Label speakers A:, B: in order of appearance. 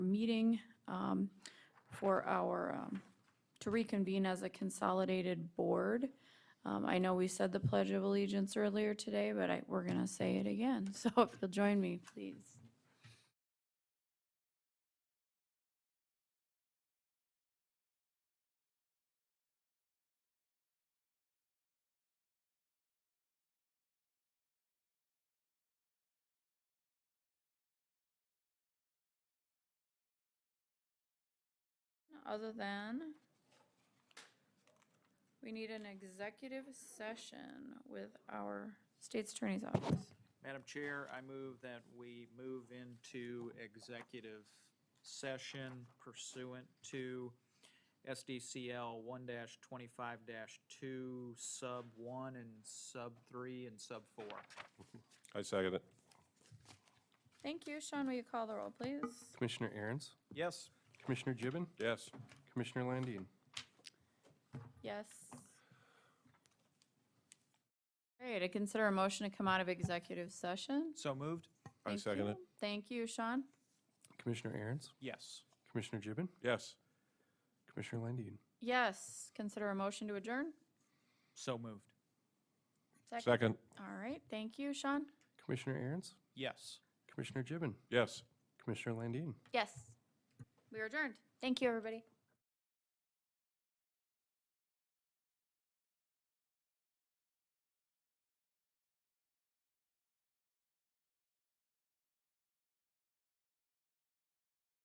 A: meeting um, for our, um, to reconvene as a consolidated board. Um, I know we said the Pledge of Allegiance earlier today, but I, we're going to say it again. So if you'll join me, please. Other than, we need an executive session with our state's attorney's office.
B: Madam Chair, I move that we move into executive session pursuant to SDCL one twenty-five two, sub one and sub three and sub four.
C: I second it.
A: Thank you. Sean, will you call the roll, please?
D: Commissioner Aaron's,
B: Yes.
D: Commissioner Gibbon,
C: Yes.
D: Commissioner Landine.
A: Yes. All right, I consider a motion to come out of executive session.
B: So moved?
C: I
A: Thank
C: second
A: you.
C: it.
A: Thank you, Sean.
D: Commissioner Aaron's,
B: Yes.
D: Commissioner Gibbon,
C: Yes.
D: Commissioner Landine.
A: Yes, consider a motion to adjourn.
B: So moved?
C: Second.
A: All right, thank you, Sean.
D: Commissioner Aaron's,
B: Yes.
D: Commissioner Gibbon,
C: Yes.
D: Commissioner Landine.
A: Yes. We are adjourned. Thank you, everybody.